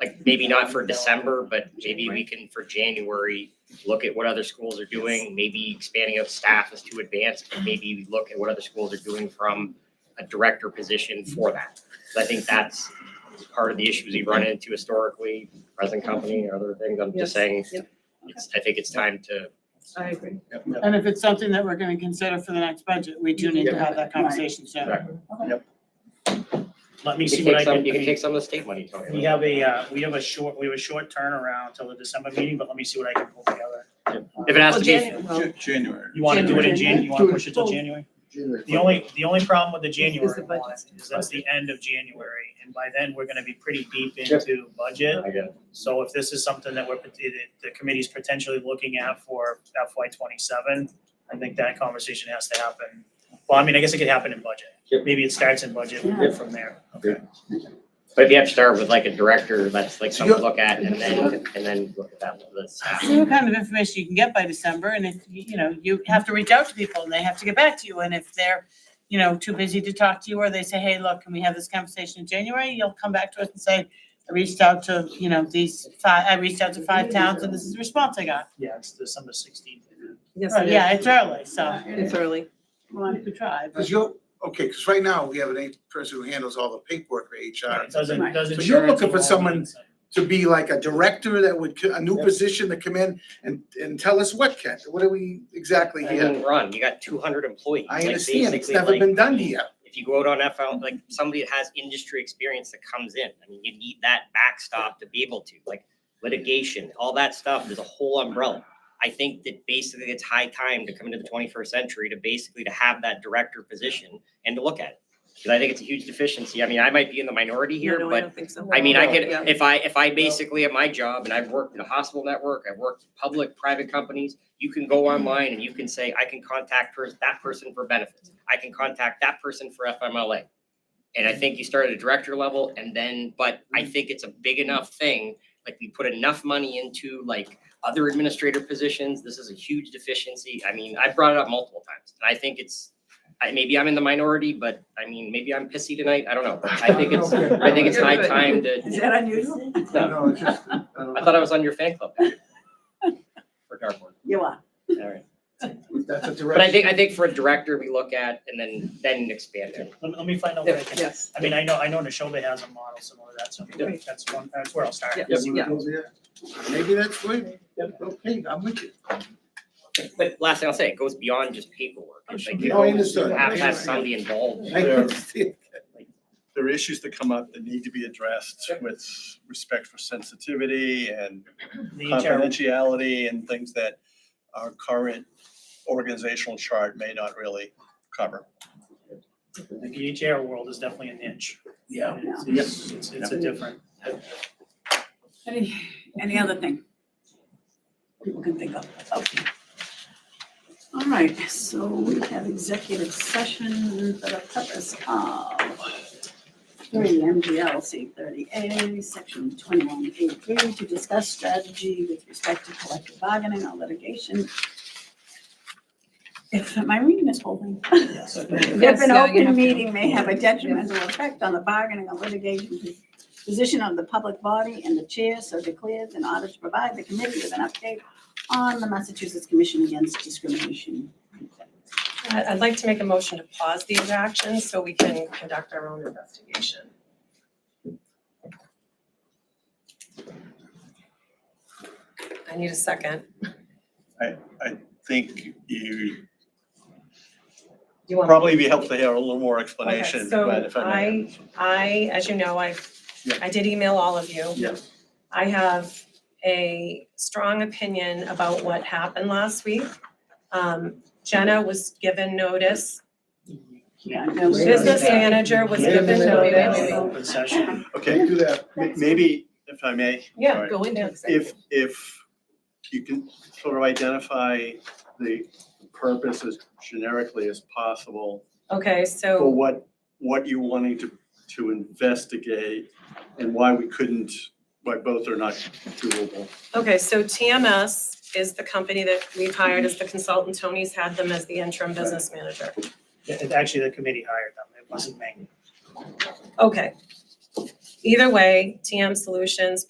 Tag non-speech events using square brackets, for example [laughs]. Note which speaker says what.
Speaker 1: like maybe not for December, but maybe we can for January, look at what other schools are doing, maybe expanding of staff is too advanced, but maybe we look at what other schools are doing from a director position for that. So I think that's part of the issues we run into historically, present company and other things. I'm
Speaker 2: Yes.
Speaker 1: just saying,
Speaker 2: Yep.
Speaker 1: it's, I think it's time to.
Speaker 2: I agree.
Speaker 3: And if it's something that we're gonna consider for the next budget, we do need to have that conversation soon.
Speaker 1: Right.
Speaker 4: Let me
Speaker 1: You
Speaker 4: see
Speaker 1: can
Speaker 4: what I
Speaker 1: take
Speaker 4: can,
Speaker 1: some, you can
Speaker 4: we
Speaker 1: take some of the state money, Tony.
Speaker 4: have a, uh, we have a short, we have a short turnaround till the December meeting, but let me see what I can pull together.
Speaker 1: If it has to be,
Speaker 2: Well, Jan- well,
Speaker 5: Jan- January.
Speaker 4: You wanna do it in Jan, you wanna push it till
Speaker 2: January.
Speaker 4: January?
Speaker 5: January.
Speaker 4: The only, the only problem with the
Speaker 2: Is the
Speaker 4: January
Speaker 2: budget.
Speaker 4: one is that's the end of January, and by then, we're gonna be pretty deep into budget.
Speaker 1: I get
Speaker 4: So if this is something that we're, that the committee's potentially looking at for FY twenty-seven, I think that conversation has to happen. Well, I mean, I guess it could happen in budget.
Speaker 1: Yep.
Speaker 4: Maybe it starts in budget, we'll go from there. Okay.
Speaker 1: But if you have to start with like a director, that's like
Speaker 5: So
Speaker 1: something to
Speaker 5: you-
Speaker 1: look at and then, and then look at that, the staff.
Speaker 3: See what kind of information you can get by December, and if, you you know, you have to reach out to people and they have to get back to you, and if they're, you know, too busy to talk to you, or they say, hey, look, can we have this conversation in January? You'll come back to us and say, I reached out to, you know, these five, I reached out to five towns and this is the response I got.
Speaker 4: Yeah, it's December sixteenth.
Speaker 2: Yes,
Speaker 3: Right,
Speaker 2: it
Speaker 3: Yeah,
Speaker 2: is.
Speaker 3: it's early, so
Speaker 2: It's early.
Speaker 3: we'll have to try. but-
Speaker 5: Does your, okay, because right now we have an eight person who handles all the paperwork for HR.
Speaker 4: It doesn't,
Speaker 6: Right.
Speaker 4: doesn't.
Speaker 5: So you're looking for someone- To be like a director that would, co- a new position to come in and, and tell us what, Ken, what are we exactly
Speaker 1: I
Speaker 5: here?
Speaker 1: didn't run, you got two hundred employees.
Speaker 5: I
Speaker 1: like,
Speaker 5: understand, it's
Speaker 1: basically,
Speaker 5: never
Speaker 1: like,
Speaker 5: been done here.
Speaker 1: If you go out on FL, like somebody that has industry experience that comes in, I mean, you need that backstop to be able to, like litigation, all that stuff, there's a whole umbrella. I think that basically it's high time to come into the twenty-first century to basically to have that director position and to look at it. Because I think it's a huge deficiency. I mean, I might be in the minority here,
Speaker 2: No,
Speaker 1: but
Speaker 2: no, I don't think so.
Speaker 1: I mean, I
Speaker 2: No,
Speaker 1: could,
Speaker 2: yeah.
Speaker 1: if I, if I basically at my job and I've worked in the hospital network, I've worked in public, private companies, you can go online and you can say, I can contact pers- that person for benefits. I can contact that person for FMLA. And I think you start at a director level and then, but I
Speaker 2: Mm-hmm.
Speaker 1: think it's a big enough thing, like we put enough money into like other administrator positions. This is a huge deficiency. I mean, I brought it up multiple times and I think it's, I, maybe I'm in the minority, but I mean, maybe I'm pissy tonight. I don't know. but I
Speaker 2: [laughs]
Speaker 1: think it's, I think it's high time to.
Speaker 6: Is that unusual?
Speaker 1: [laughs]
Speaker 5: [laughs]
Speaker 1: No,
Speaker 5: No, it's just, I don't
Speaker 1: I thought I
Speaker 5: know.
Speaker 1: was on your fan
Speaker 5: [laughs]
Speaker 1: club. For dartboard,
Speaker 6: You are.
Speaker 1: all right.
Speaker 5: That's a
Speaker 1: But I
Speaker 5: direction.
Speaker 1: think, I think for a director, we look at and then, then expand it.
Speaker 4: Let, me- let me find out what I can,
Speaker 2: Yes.
Speaker 4: I mean, I know, I know Nishoba has a model similar to that, so
Speaker 2: Yeah.
Speaker 4: that's one, that's where I'll start.
Speaker 2: Yeah.
Speaker 4: See what-
Speaker 5: Maybe that's right. Okay, I'm with you.
Speaker 1: But last thing I'll say, it goes beyond just paperwork. It's like, you
Speaker 5: No, Oh, I understood.
Speaker 1: have to have somebody involved.
Speaker 5: [laughs] I understand.
Speaker 7: there are issues that come up that need to be addressed with respect for sensitivity and
Speaker 4: The HR,
Speaker 7: confidentiality and things that our current organizational chart may not really cover.
Speaker 4: the HR world is definitely a niche.
Speaker 5: Yeah.
Speaker 4: It's- It's, it's, it's a different.
Speaker 6: Any, any other thing? People can think of, okay. All right, so we have executive session for the purpose of three MGL thirty A, section twenty-one A three, to discuss strategy with respect to collective bargaining or litigation. If, am I reading this whole thing? If an open meeting may have a detrimental effect on the bargaining or litigation position of the public body and the chair so declares in order to provide the committee with an update on the Massachusetts Commission Against Discrimination.
Speaker 8: I- Uh, I'd like to make a motion to pause these actions so we can conduct our own investigation. I need a second.
Speaker 7: Think you
Speaker 8: You want?
Speaker 7: probably be helpful to hear a little more
Speaker 8: Okay,
Speaker 7: explanation,
Speaker 8: so
Speaker 7: but if I may.
Speaker 8: I, as you know, I,
Speaker 7: Yeah.
Speaker 8: I did email all of you.
Speaker 7: Yeah.
Speaker 8: I have a strong opinion about what happened last week. Um, Jenna was given notice,
Speaker 6: Yeah, no.
Speaker 8: business manager was
Speaker 7: Wait a
Speaker 8: given
Speaker 7: minute.
Speaker 8: notice.
Speaker 4: Open session.
Speaker 7: Okay,
Speaker 5: Do that.
Speaker 7: m- maybe if I may.
Speaker 8: Yeah,
Speaker 7: sorry.
Speaker 8: go into executive.
Speaker 7: If, if you can sort of identify the purpose as generically as possible
Speaker 8: Okay, so.
Speaker 7: for what, what you're wanting to, to investigate and why we couldn't, why both are not doable.
Speaker 8: Okay, so TMS is the company that we've hired as the consultant. Tony's had them as the interim business manager.
Speaker 4: Yeah, it- Actually, the committee hired them. It wasn't me.
Speaker 8: Okay. Either way, TM Solutions